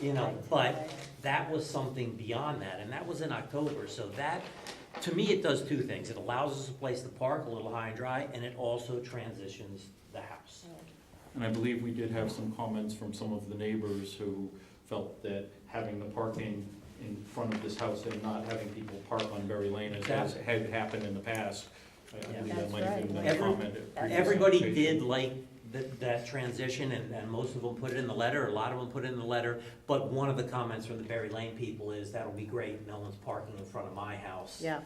you know, but that was something beyond that, and that was in October, so that, to me, it does two things, it allows us a place to park a little high and dry, and it also transitions the house. And I believe we did have some comments from some of the neighbors who felt that having the parking in front of this house and not having people park on Berry Lane as has, had happened in the past, I- I Yeah. believe that That's might have been right. a Every- comment. at previous Everybody application. did like that, that transition, and, and most of them put it in the letter, a lot of them put it in the letter, but one of the comments from the Berry Lane people is, that'll be great, no one's parking in front of my house. Yeah,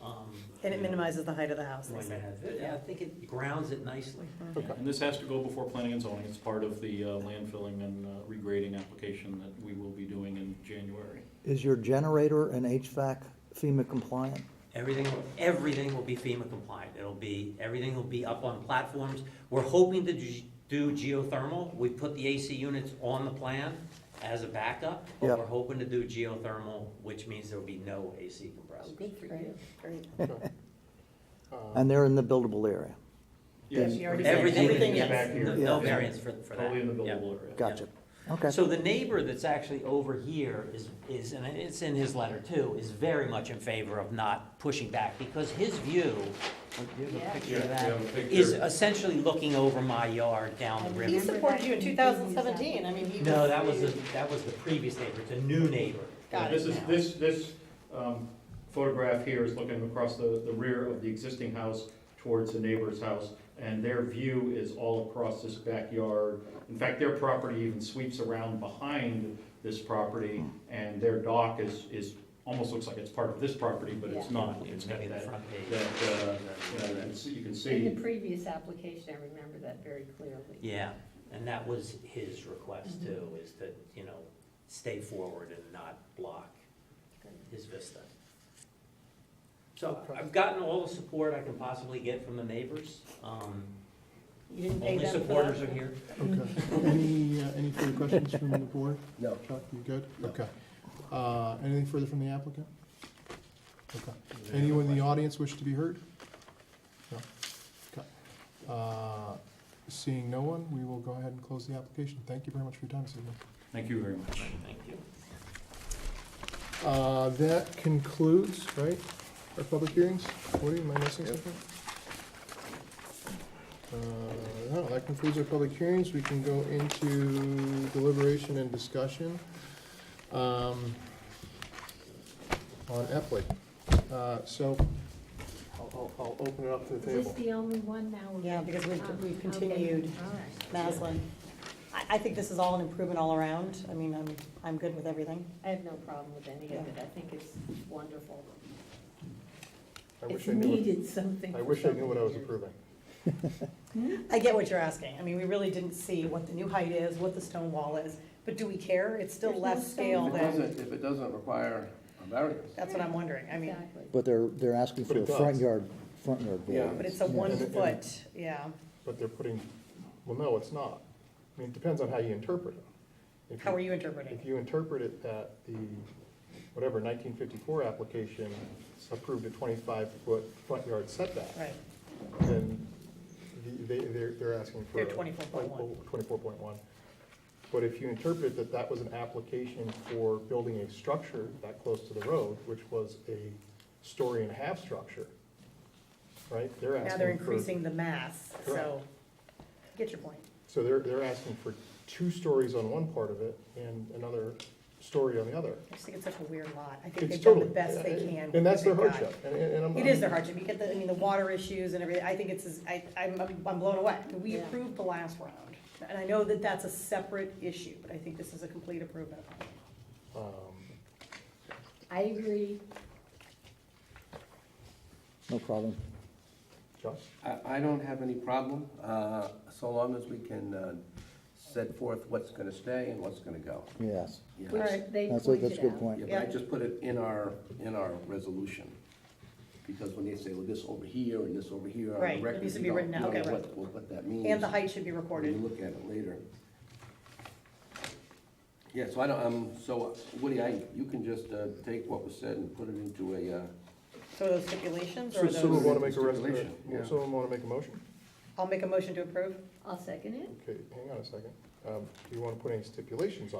Um, and it minimizes the height of the house. Wait a minute. Yeah, I think it grounds it nicely. Yeah, And this has to go before planning and zoning, it's part of the uh, landfilling and uh, regrading application that we will be doing in January. Is your generator and HVAC FEMA compliant? Everything, everything will be FEMA compliant. It'll be, everything will be up on platforms. We're hoping to g- do geothermal. We put the AC units on the plan as a backup, Yeah. but we're hoping to do geothermal, which means there'll be no AC compressors. Oh, Good for you. Great. Okay. Uh, And they're in the buildable area? Yes, You already said Everything, everything is- is- back here. no- no Yeah. variance for, for that. Totally in the Yeah. buildable area. Gotcha. Okay. So the neighbor that's actually over here is, is, and it's in his letter too, is very much in favor of not pushing back, because his view, do you have a picture Yeah, of we that? have a picture. Is essentially looking over my yard down the He river. supported you in two thousand seventeen, I mean, he was. No, that was, the- that was the previous neighbor, it's a new neighbor. Got This it is, now. this, this um, photograph here is looking across the, the rear of the existing house towards the neighbor's house, and their view is all across this backyard. In fact, their property even sweeps around behind this property, and their dock is, is, almost looks like it's part of this property, but it's Yeah. not. It's It's got maybe the that, front page. that, uh, you know, that's- you can In see, the previous application, I remember that very clearly. Yeah, and that was his Mm-hmm. request too, is to, you know, stay forward and not block his vista. So I've gotten all the support I can possibly get from the neighbors. Um, You didn't pay Only them for supporters that? are here. Okay. Any, uh, any further questions from the board? No. Chuck, you good? Okay. Uh, Anything further from the applicant? Okay. Anyone in the audience wish to be heard? No? Okay. Uh, Seeing no one, we will go ahead and close the application. Thank you very much for your time this evening. thank you very much. Thank you. Uh, That concludes, right, our public hearings? Woody, am I missing something? Uh, No, that concludes our public hearings. We can go into deliberation and discussion um, on Epley. Uh, So I'll- I'll I'll open it up to the Is this table. the only one now? we're- Yeah, because we've, we've Oh, okay. continued All right. Maslin. I, I think this is all an improvement all around, I mean, I'm, I'm good with everything. I have no problem with any of it. I think it's wonderful. I It's wish I knew. what- needed something. I for wish I knew what I was something. approving. I get what you're asking, I mean, we really didn't see what the new height is, what the stone wall is, but do we care? It's still There's no less stone scale wall. If it than, doesn't, if it doesn't require a variance. that's what I'm wondering, I mean, Exactly. But they're, they're asking But for it a front does. yard, front yard Yeah. but variance. it's a one And- and- foot, yeah. But they're putting, well, no, it's not. I mean, it depends on how you interpret it. If How are you interpreting If it? you interpret it that the, whatever, 1954 application approved a 25-foot front yard setback, Right, then the- they, they're, they're asking for. They're 24.1. 24.1. But if you interpret that that was an application for building a structure that close to the road, which was a story and a half structure, right? They're asking now for. they're increasing the mass, so, Correct. get your point. So they're, they're asking for two stories on one part of it and another story on the other. I just think it's such a weird lot. I think It's they've done the totally best they can. And that's their with what hardship, they've and, and and I'm. got. It is their hardship. You get the, I mean, the water issues and everything. I think it's, as- I, I'm, I'm blown away. We Yeah. approved the last round. And I know that that's a separate issue, but I think this is a complete improvement. um, I agree. No problem. Josh? I, I don't have any problem, uh, so long as we can uh, set forth what's gonna stay and what's gonna go. Yes. Yeah. Which Alright. they That's a, that's a pointed good out. point. Yeah, but I just put it in our, in our resolution, because when they say, well, this over here and this over here on Right, the it record, needs to you be don't written out, know okay, right. what- what- What that means. And the height should be when you recorded. look at it later. Yeah, so I don't, um, so Woody, I, you can just uh, take what was said and put it into a, uh, So are those stipulations or So are someone those, wanna make a rest, Stipulation, yeah. someone wanna make a motion? I'll make a motion to approve? I'll second it. Okay, hang on a second. Um, do you wanna put any stipulations on?